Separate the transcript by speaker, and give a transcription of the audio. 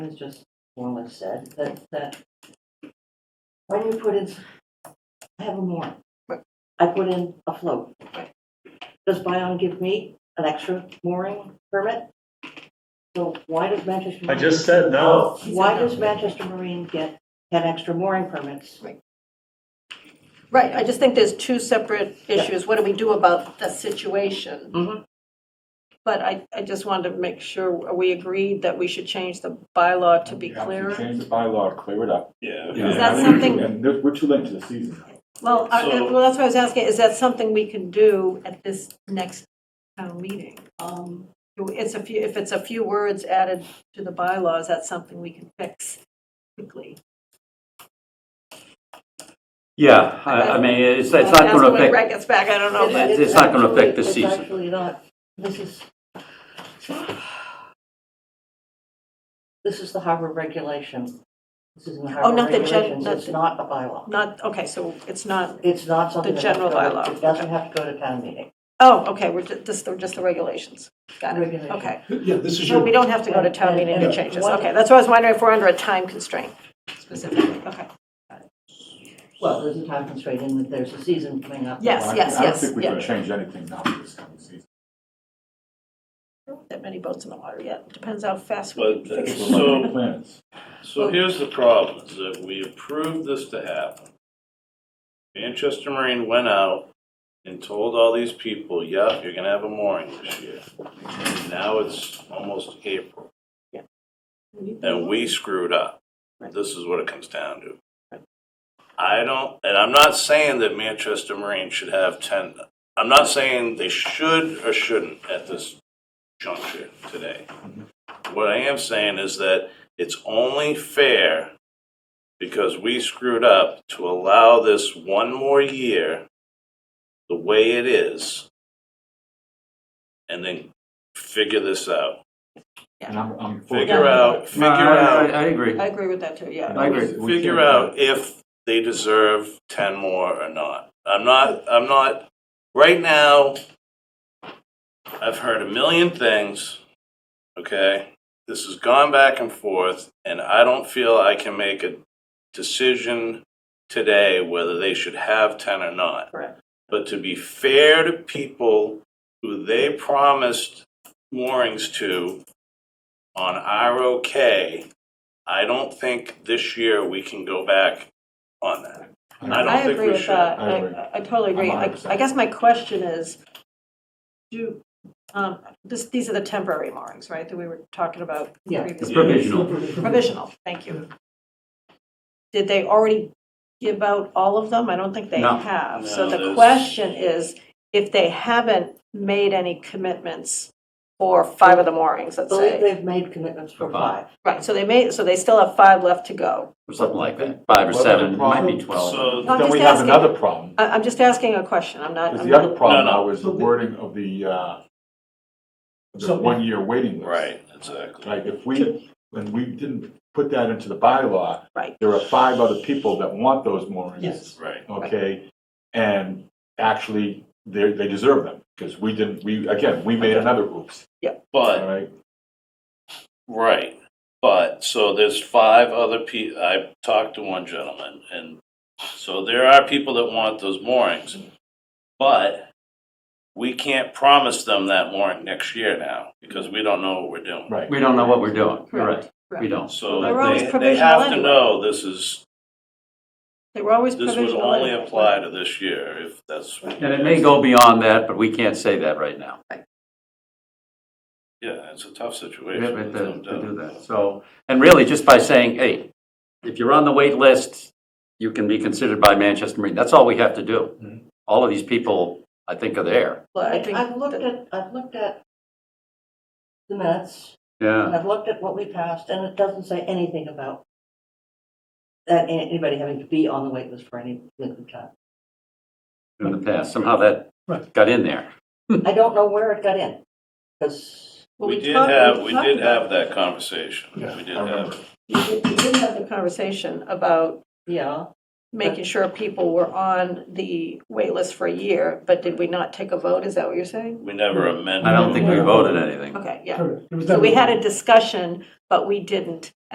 Speaker 1: was just Wallace said, that, that when you put in, I have a warrant.
Speaker 2: Right.
Speaker 1: I put in a float. Does Bion give me an extra mooring permit? So why does Manchester?
Speaker 3: I
Speaker 1: Marine-
Speaker 3: just said no.
Speaker 1: Why does Manchester Marine get ten extra mooring permits?
Speaker 2: Right, I just think there's two separate issues. What do we do about the situation?
Speaker 4: Mm-hmm.
Speaker 1: Mhm.
Speaker 2: But I, I just wanted to make sure, we agreed that we should change the bylaw to be
Speaker 5: You have
Speaker 2: clearer?
Speaker 5: Change the bylaw, clear it up.
Speaker 6: Yeah.
Speaker 2: Is that
Speaker 5: I
Speaker 2: something-
Speaker 5: think- And we're- we're too late to the season.
Speaker 2: Well, I-
Speaker 6: So-
Speaker 2: well, that's what I was asking, is that something we can do at this next town meeting? Um, It's a few, if it's a few words added to the bylaws, that's something we can fix quickly.
Speaker 4: Yeah, I, I mean, it's, it's not
Speaker 2: That's
Speaker 4: gonna
Speaker 2: when
Speaker 4: affect,
Speaker 2: Brett gets back, I don't know, but.
Speaker 4: it's- it's not gonna
Speaker 1: actually-
Speaker 4: affect the season.
Speaker 1: It's actually not, this is. This is the harbor regulation. This is in the harbor
Speaker 2: Oh, not the gen-
Speaker 1: regulations,
Speaker 2: not
Speaker 1: it's
Speaker 2: the-
Speaker 1: not a bylaw.
Speaker 2: Not, okay, so it's not,
Speaker 1: It's not something.
Speaker 2: The
Speaker 1: that has to
Speaker 2: general
Speaker 1: go-
Speaker 2: bylaw.
Speaker 1: It doesn't have to go to town meeting.
Speaker 2: oh, okay, we're ju- just, the- just the regulations. Got it,
Speaker 1: Regulation.
Speaker 2: okay.
Speaker 6: Yeah, this is
Speaker 2: So we
Speaker 6: your,
Speaker 2: don't have to go to town meeting to
Speaker 1: And-
Speaker 2: change this,
Speaker 1: and-
Speaker 2: okay, that's why I was wondering if we're under a time constraint specifically, okay.
Speaker 1: Well, there's a time constraint in that there's a season coming up.
Speaker 2: Yes,
Speaker 5: Well, I-
Speaker 2: yes,
Speaker 5: I don't
Speaker 2: yes,
Speaker 5: think we
Speaker 2: yeah.
Speaker 5: can change anything now for this coming season.
Speaker 2: That many boats in the water yet, depends how fast we
Speaker 6: But
Speaker 2: figure
Speaker 6: that's-
Speaker 5: We're
Speaker 2: it
Speaker 6: So-
Speaker 5: running out of plans.
Speaker 6: so here's the problem, is that we approved this to happen. Manchester Marine went out and told all these people, yep, you're gonna have a mooring this year. And Now it's almost April,
Speaker 2: out.
Speaker 6: and we screwed up. This is what it comes down to. I don't, and I'm not saying that Manchester Marine should have ten, I'm not saying they should or shouldn't at this juncture today. What I am saying is that it's only fair, because we screwed up, to allow this one more year the way it is, and then figure this out.
Speaker 5: And I'm, I'm. for
Speaker 6: Figure
Speaker 5: that.
Speaker 6: out, figure
Speaker 4: no, Uh, I, I,
Speaker 6: out,
Speaker 4: I agree.
Speaker 2: I agree with that too, yeah.
Speaker 4: I agree.
Speaker 5: We
Speaker 6: figure
Speaker 5: can't-
Speaker 6: out if they deserve ten more or not. I'm not, I'm not, right now, I've heard a million things, okay? This has gone back and forth, and I don't feel I can make a decision today whether they should have ten or not.
Speaker 2: Correct.
Speaker 6: But to be fair to people who they promised moorings to on our okay, I don't think this year we can go back on that. I don't
Speaker 2: I
Speaker 6: think
Speaker 2: agree
Speaker 6: we
Speaker 2: with
Speaker 6: should.
Speaker 2: that.
Speaker 5: I agree.
Speaker 2: I, I totally agree.
Speaker 5: I'm
Speaker 2: I,
Speaker 5: 100%.
Speaker 2: I guess my question is, do, um, this, these are the temporary moorings, right, that we were talking about
Speaker 1: Yeah.
Speaker 4: It's
Speaker 2: previously?
Speaker 4: provisional.
Speaker 2: Provisional, thank you. Did they already give out all of them? I don't think they
Speaker 4: No.
Speaker 2: have. So
Speaker 6: No,
Speaker 2: the
Speaker 6: there's-
Speaker 2: question is, if they haven't made any commitments for five of the moorings,
Speaker 1: I
Speaker 2: let's
Speaker 1: believe
Speaker 2: say.
Speaker 1: they've made commitments for
Speaker 4: For five.
Speaker 1: five.
Speaker 2: Right, so they made, so they still have five left to go.
Speaker 4: Or something like that, five or
Speaker 5: Well,
Speaker 4: seven, it might be
Speaker 5: problem-
Speaker 4: twelve.
Speaker 6: So
Speaker 2: No, I'm
Speaker 5: Then
Speaker 2: just
Speaker 5: we have
Speaker 2: asking.
Speaker 5: another problem,
Speaker 2: I, I'm just asking a question, I'm not.
Speaker 5: because
Speaker 2: I'm
Speaker 5: the other
Speaker 2: not-
Speaker 5: problem
Speaker 6: No, no.
Speaker 5: now is the wording of the, uh, the
Speaker 7: So-
Speaker 5: one-year waiting list.
Speaker 6: Right, exactly.
Speaker 5: Like, if we, when we didn't put that into the bylaw.
Speaker 2: Right.
Speaker 5: There are five other people that want those moorings.
Speaker 7: Yes.
Speaker 6: Right.
Speaker 5: okay? And actually, they, they deserve them, because we didn't, we, again, we made another oops, all
Speaker 6: But,
Speaker 5: right?
Speaker 6: right. But, so there's five other people, I talked to one gentleman, and so there are people that want those moorings. But we can't promise them that mooring next year now because we don't know what we're doing.
Speaker 5: Right.
Speaker 4: We don't know what we're doing, you're right,
Speaker 2: Correct,
Speaker 4: we
Speaker 2: correct.
Speaker 4: don't.
Speaker 6: So
Speaker 2: They're always
Speaker 6: they, they
Speaker 2: provisional
Speaker 6: have to
Speaker 2: anyway.
Speaker 6: know this is,
Speaker 2: They were always
Speaker 6: this
Speaker 2: provisional.
Speaker 6: would only
Speaker 2: anyway.
Speaker 6: apply to this year if that's. what you
Speaker 4: And it may
Speaker 6: guys-
Speaker 4: go beyond that, but we can't say that right now.
Speaker 6: Yeah, it's a tough
Speaker 4: We
Speaker 6: situation.
Speaker 4: have
Speaker 6: there's
Speaker 4: to,
Speaker 6: no
Speaker 4: to do
Speaker 6: doubt.
Speaker 4: that, so, and really, just by saying, hey, if you're on the wait list, you can be considered by Manchester Marine, that's all we have to
Speaker 6: Mm-hmm.
Speaker 4: do. All of these people, I think, are there,
Speaker 2: Well, I think
Speaker 1: I've looked
Speaker 2: that-
Speaker 1: at, I've looked at the minutes. And
Speaker 4: yeah,
Speaker 1: I've looked at what we passed, and it doesn't say anything about that anybody having to be on the wait list for any length of time.
Speaker 4: in the past, somehow that
Speaker 7: Right.
Speaker 4: got in there.
Speaker 1: I don't know where it got in, because
Speaker 2: well,
Speaker 6: We did
Speaker 2: talked-
Speaker 6: have, we did
Speaker 2: talked about-
Speaker 6: have that conversation. We did
Speaker 5: I remember.
Speaker 6: have,
Speaker 2: We did- we did have the conversation about
Speaker 1: yeah,
Speaker 2: making sure people were on the wait list for a year, but did we not take a vote? Is that what you're saying?
Speaker 6: we never amended.
Speaker 4: I don't think we
Speaker 7: Yeah.
Speaker 4: voted anything.
Speaker 2: Okay, yeah.
Speaker 7: Correct. It was
Speaker 2: So we
Speaker 7: never-
Speaker 2: had a discussion, but we didn't